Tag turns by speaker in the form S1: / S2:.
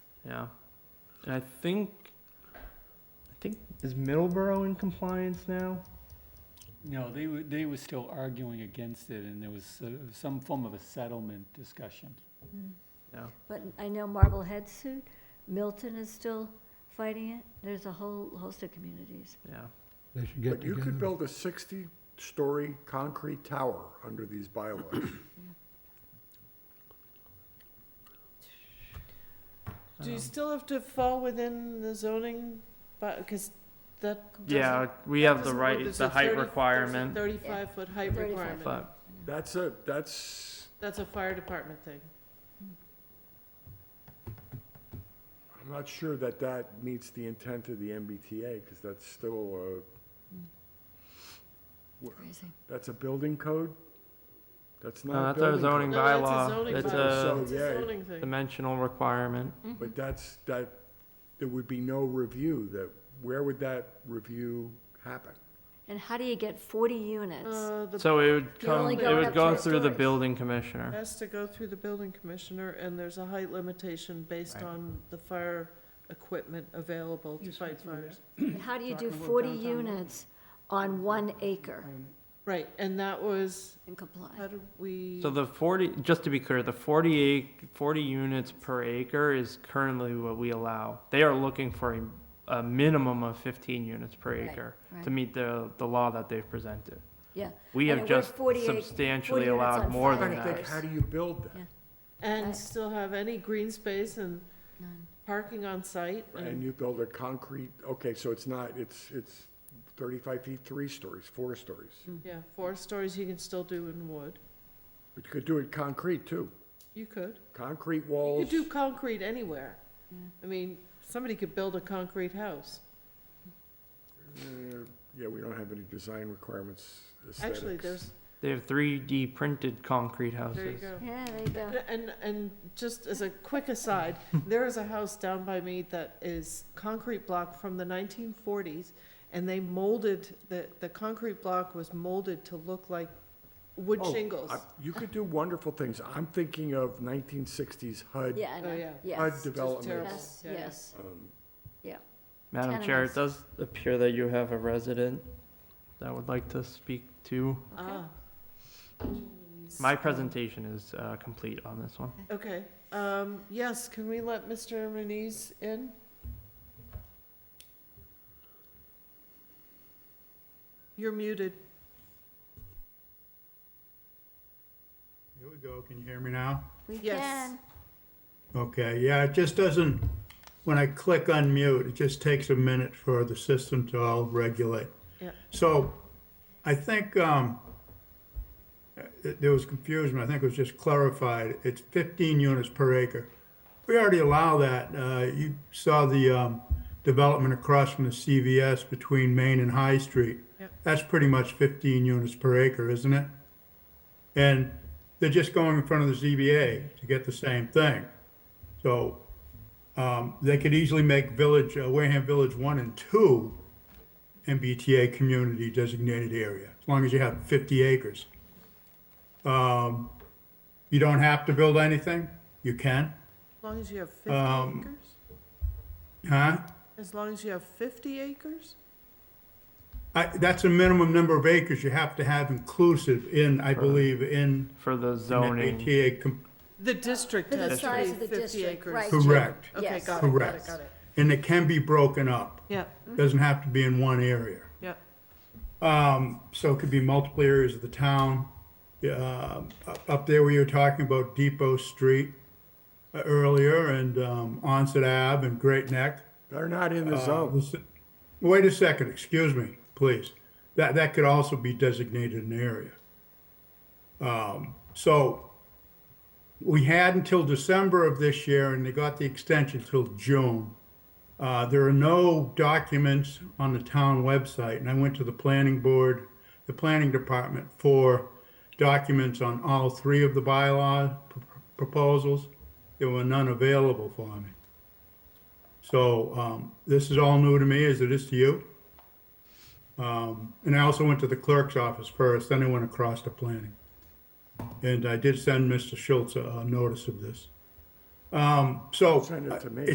S1: Yeah, and I think, I think is Middleborough in compliance now?
S2: No, they were, they were still arguing against it, and there was uh, some form of a settlement discussion.
S1: Yeah.
S3: But I know Marblehead sued, Milton is still fighting it, there's a whole host of communities.
S1: Yeah.
S4: They should get
S5: But you could
S4: together.
S5: build a 60-story concrete tower under these bylaws.
S6: Do you still have to fall within the zoning, but, because that.
S1: Yeah, we have the right, it's the height requirement,
S6: Thirty-five foot height
S3: 35.
S6: requirement,
S1: but
S5: That's a, that's,
S6: that's a fire department thing.
S5: I'm not sure that that meets the intent of the MBTA, because that's still a, Wha-
S3: Crazy.
S5: that's a building code? That's
S1: No,
S5: not a
S1: that's our
S5: building
S1: zoning
S5: code.
S6: No, that's
S1: bylaw,
S6: a zoning
S1: it's
S6: bylaw.
S5: a-
S6: It's a
S5: So, yeah.
S6: zoning thing.
S1: dimensional requirement.
S5: But that's, that, there would be no review that, where would that review happen?
S3: And how do you get forty units?
S6: Uh, the
S1: So it would
S3: You
S1: come,
S3: only
S1: it
S3: go
S1: would
S3: up
S1: go
S3: to
S1: through the
S3: stories.
S1: building commissioner.
S6: Has to go through the building commissioner, and there's a height limitation based
S1: Right.
S6: on the fire equipment available to
S2: You
S6: fight
S2: should do that.
S6: fires.
S3: And how do you do
S2: Talking about
S3: forty
S2: downtown Milton.
S3: units on one acre
S6: Right, and that was,
S3: and comply?
S6: how did we,
S1: So the forty, just to be clear, the 48 40 units per acre is currently what we allow. They are looking for a, a minimum of fifteen units per
S3: Right,
S1: acre
S3: right.
S1: to meet the, the law that they've presented.
S3: Yeah.
S1: We
S3: And
S1: have
S3: it was
S1: just
S3: 48 40
S1: substantially
S3: units
S1: allowed
S3: on
S1: more
S3: five
S1: than
S5: I'm trying to
S1: that.
S5: think, how do you build that?
S3: I-
S6: and still have any green space and
S3: None.
S6: parking on site?
S5: And you build a concrete, okay, so it's not, it's, it's 35 feet, three stories, four stories.
S6: Yeah, four stories you can still do in wood.
S5: But you could do it concrete, too.
S6: You could.
S5: Concrete
S6: You
S5: walls.
S6: could do concrete anywhere.
S3: Yeah.
S6: I mean, somebody could build a concrete house.
S5: Uh, Yeah, we don't have any design requirements, aesthetics.
S6: Actually, there's,
S1: They have three D printed concrete
S6: there you
S1: houses.
S6: go.
S3: Yeah, there you go.
S6: And, and just as a quick aside, there is a house down by me that is concrete block from the nineteen forties, and they molded, the, the concrete block was molded to look like wood
S5: Oh,
S6: shingles.
S5: I- You could do wonderful things. I'm thinking of 1960s HUD,
S3: Yeah, I
S6: Oh,
S3: know,
S6: yeah.
S5: HUD
S3: yes,
S6: It's just terrible.
S5: development.
S3: yes,
S6: Yeah, yeah.
S3: yes.
S5: Um,
S1: Madam Chair,
S3: Tenements.
S1: it does appear that you have a resident that would like to speak to.
S6: Ah.
S1: My presentation is, uh, complete on this one.
S6: Okay, um, yes, can we let Mr. Muniz in? You're muted.
S7: Here we go, can you hear me now?
S3: We
S6: Yes.
S3: can,
S7: Okay, yeah, it just doesn't, when I click unmute, it just takes a minute for the system to all regulate.
S6: Yeah.
S7: So I think um, uh, there was confusion, I think it was just clarified, it's 15 units per acre. We already allow that, Uh, you saw the um, development across from the CVS between Main and High Street.
S6: Yeah.
S7: That's pretty much 15 units per acre, isn't it? And they're just going in front of the ZBA to get the same thing. So um, they could easily make Village, uh, Wareham Village 1 and 2 MBTA community designated area, as long as you have 50 acres. Um, You don't have to build anything, you can,
S6: As long as you have fifty
S7: Um,
S6: acres?
S7: huh?
S6: As long as you have fifty acres?
S7: I- That's a minimum number of acres you have to have inclusive in, I believe, in
S1: For the
S7: an
S1: zoning,
S7: MBTA com-
S6: The district
S3: For the
S6: has to
S3: size
S6: be
S3: of the
S6: fifty
S3: district,
S6: acres.
S3: right.
S7: Correct.
S6: Okay,
S3: Yes.
S6: got it, got it,
S7: Correct.
S6: got it. Mm-hmm.
S7: and it can be broken up.
S6: Yeah,
S7: Doesn't have to be in one area.
S6: yeah.
S7: Um, so it could be multiple areas of the town. Yeah, um, up- up there where you were talking about Depot Street uh, earlier and, um, Onset Ave and Great Neck.
S5: They're not in the
S7: Uh,
S5: zone.
S7: this- Wait a second, excuse me, please. That, that could also be designated an area. Um, so we had until December of this year and they got the extension till June. Uh, there are no documents on the town website and I went to the planning board, the planning department for documents on all three of the bylaw p- proposals. There were none available for me. So um, this is all new to me, as it is to you. Um, And I also went to the clerk's office first, then I went across to planning. And I did send Mr. Schultz a a notice of this. Um, So
S5: Send it to me.